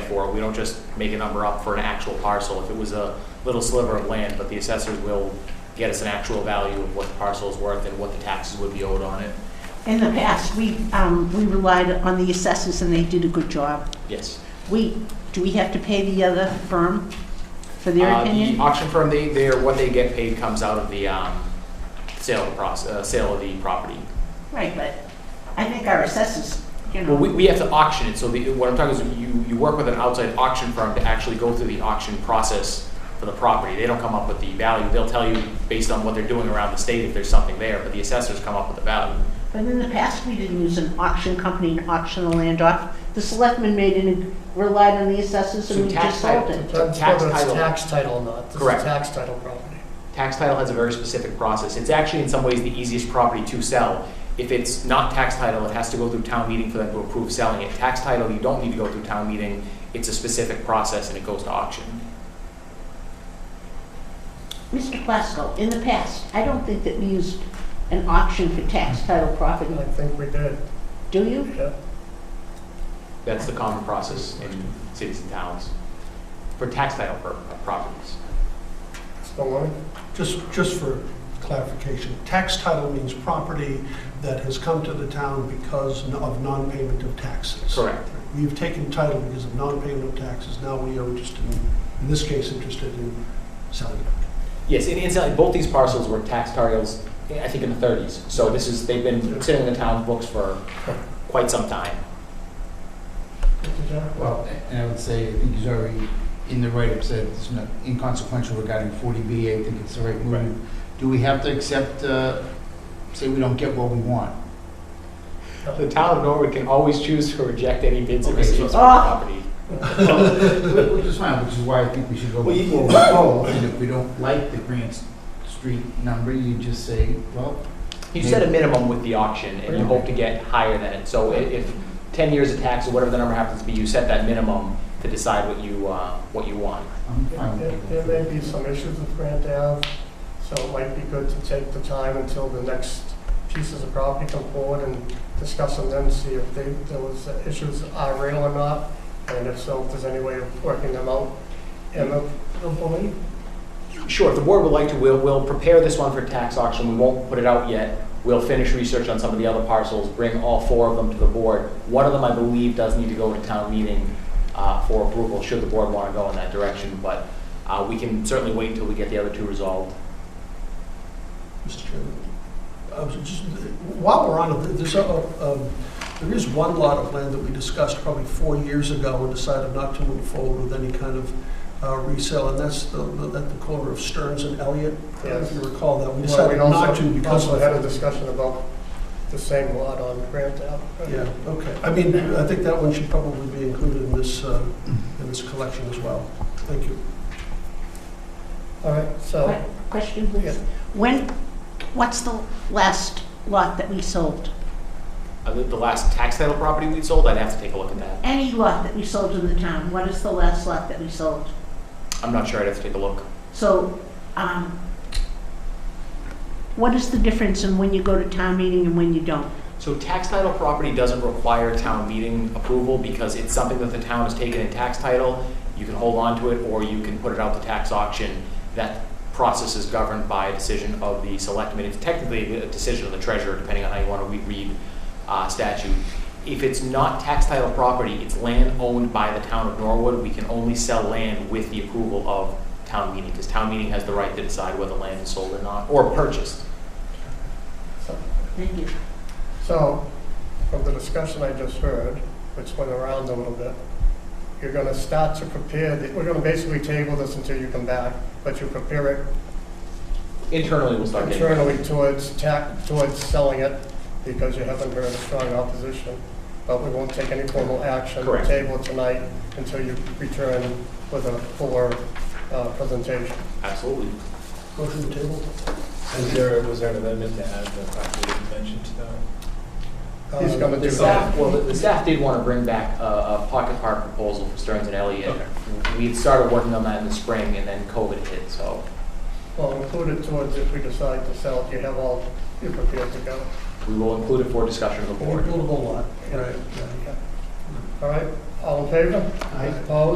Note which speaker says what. Speaker 1: for. We don't just make a number up for an actual parcel. If it was a little sliver of land, but the assessors will get us an actual value of what the parcel is worth and what the taxes would be owed on it.
Speaker 2: In the past, we, um, we relied on the assessors and they did a good job.
Speaker 1: Yes.
Speaker 2: We, do we have to pay the other firm for their
Speaker 1: Uh,
Speaker 2: opinion?
Speaker 1: The auction firm, they, they're, what they get paid comes out of the, um, sale of the proce- uh, sale of the property.
Speaker 2: Right, but I think our assessors, you
Speaker 1: Well, we,
Speaker 2: know,
Speaker 1: we have to auction it, so the, what I'm talking is you, you work with an outside auction firm to actually go through the auction process for the property. They don't come up with the value, they'll tell you based on what they're doing around the state if there's something there, but the assessors come up with the value.
Speaker 2: but in the past, we didn't use an auction company and auction the land off. The selectmen made it, and relied on the assessors
Speaker 1: So
Speaker 2: and we
Speaker 1: tax
Speaker 2: just sold
Speaker 1: title-
Speaker 2: it.
Speaker 1: Tax title.
Speaker 3: Whether it's tax title, or not, this is
Speaker 1: Correct.
Speaker 3: tax title property.
Speaker 1: Tax title has a very specific process. It's actually in some ways the easiest property to sell. If it's not tax title, it has to go through town meeting for them to approve selling it. Tax title, you don't need to go through town meeting. It's a specific process and it goes to auction.
Speaker 2: Mr. Plasko, in the past, I don't think that we used an auction for tax title property,
Speaker 3: I think we did,
Speaker 2: do you?
Speaker 3: yeah.
Speaker 1: That's the common process in cities and towns for tax title pro- uh, properties.
Speaker 3: Maloney?
Speaker 4: Just, just for clarification, tax title means property that has come to the town because of non-payment of taxes.
Speaker 1: Correct.
Speaker 4: We've taken title because of non-payment of taxes, now we are interested, in in this case, interested in selling it.
Speaker 1: Yes, and incidentally, both these parcels were tax titles, I think, in the 30s. So this is, they've been sitting in the town books for quite some time.
Speaker 4: Did that-
Speaker 5: Well, and I would say, I think he's already in the right, said it's not inconsequential regarding 40B, I think it's the right move. Do we have to accept, uh, say we don't get what we want?
Speaker 1: The town of Norwood can always choose to reject any bids it
Speaker 5: Okay, so-
Speaker 1: receives on the
Speaker 2: Ah!
Speaker 1: property.
Speaker 5: Which is fine, which is why I think we should go
Speaker 1: Well, you-
Speaker 5: forward with both, and if we don't like the Grant Street number, you just say, well,
Speaker 1: You set a minimum with the auction, and you hope to get higher than it. So i- if 10 years of tax, or whatever the number happens to be, you set that minimum to decide what you, uh, what you want.
Speaker 5: I'm
Speaker 4: Um,
Speaker 5: fine
Speaker 3: There
Speaker 5: with
Speaker 3: there
Speaker 5: it.
Speaker 3: may be some issues with Grant Ave, so it might be good to take the time until the next pieces of property come forward and discuss them then, see if they, there was issues are real or not, and if so, if there's any way of working them out. And the, the belief,
Speaker 1: Sure, if the board would like to, we'll, we'll prepare this one for tax auction, we won't put it out yet. We'll finish research on some of the other parcels, bring all four of them to the board. One of them, I believe, does need to go to town meeting uh, for approval, should the board want to go in that direction, but uh, we can certainly wait until we get the other two resolved.
Speaker 4: Mr. Chairman, I was just- while we're on it, there's, a- um, there is one lot of land that we discussed probably four years ago and decided not to move forward with any kind of uh, resale, and that's the, the- at the corner of Stearns and Elliott. Uh, If you
Speaker 3: Yes.
Speaker 4: recall that, we
Speaker 3: well,
Speaker 4: decided
Speaker 3: we'd
Speaker 4: not to
Speaker 3: also,
Speaker 4: because
Speaker 3: also
Speaker 4: of.
Speaker 3: had a discussion about the same lot on Grant Ave.
Speaker 4: Yeah, okay. I mean, I think that one should probably be included in this, uh, in this collection as well. Thank you.
Speaker 3: All right, so.
Speaker 2: Que- Question, please.
Speaker 3: Yeah.
Speaker 2: When, what's the last lot that we sold?
Speaker 1: Uh, The the last tax title property we sold, I'd have to take a look at that.
Speaker 2: Any lot that we sold in the town, what is the last lot that we sold?
Speaker 1: I'm not sure, I'd have to take a look.
Speaker 2: So, um, what is the difference in when you go to town meeting and when you don't?
Speaker 1: So tax title property doesn't require town meeting approval because it's something that the town has taken in tax title. You can hold on to it or you can put it out to tax auction. That process is governed by a decision of the selectmen. It's technically a decision of the treasurer, depending on how you want to read uh, statute. If it's not tax title property, it's land owned by the town of Norwood. We can only sell land with the approval of town meeting because town meeting has the right to decide whether land is sold or not, or purchased.
Speaker 2: Thank you.
Speaker 3: So, from the discussion I just heard, which went around a little bit, you're gonna start to prepare, the- we're gonna basically table this until you come back, but you prepare it
Speaker 1: Internally, we'll start getting.
Speaker 3: internally towards tax, towards selling it, because you haven't heard a strong opposition, but we won't take any formal action.
Speaker 1: Correct.
Speaker 3: Table it tonight until you return with a fuller, uh, presentation.
Speaker 1: Absolutely.
Speaker 4: Motion to table?
Speaker 6: Was there, was there an amendment to add the property dimension to that?
Speaker 3: He's gonna do
Speaker 1: The
Speaker 3: that.
Speaker 1: staff, well, the- the staff did want to bring back a, a pocket park proposal for Stearns and Elliott.
Speaker 6: Okay.
Speaker 1: We had started working on that in the spring and then COVID hit, so
Speaker 3: Well, include it towards if we decide to sell it, you have all, you're prepared to go.
Speaker 1: we will include it for discussion of the board.
Speaker 4: Buildable lot, right.
Speaker 3: All right, All in favor?
Speaker 4: Aye.
Speaker 3: Opposed?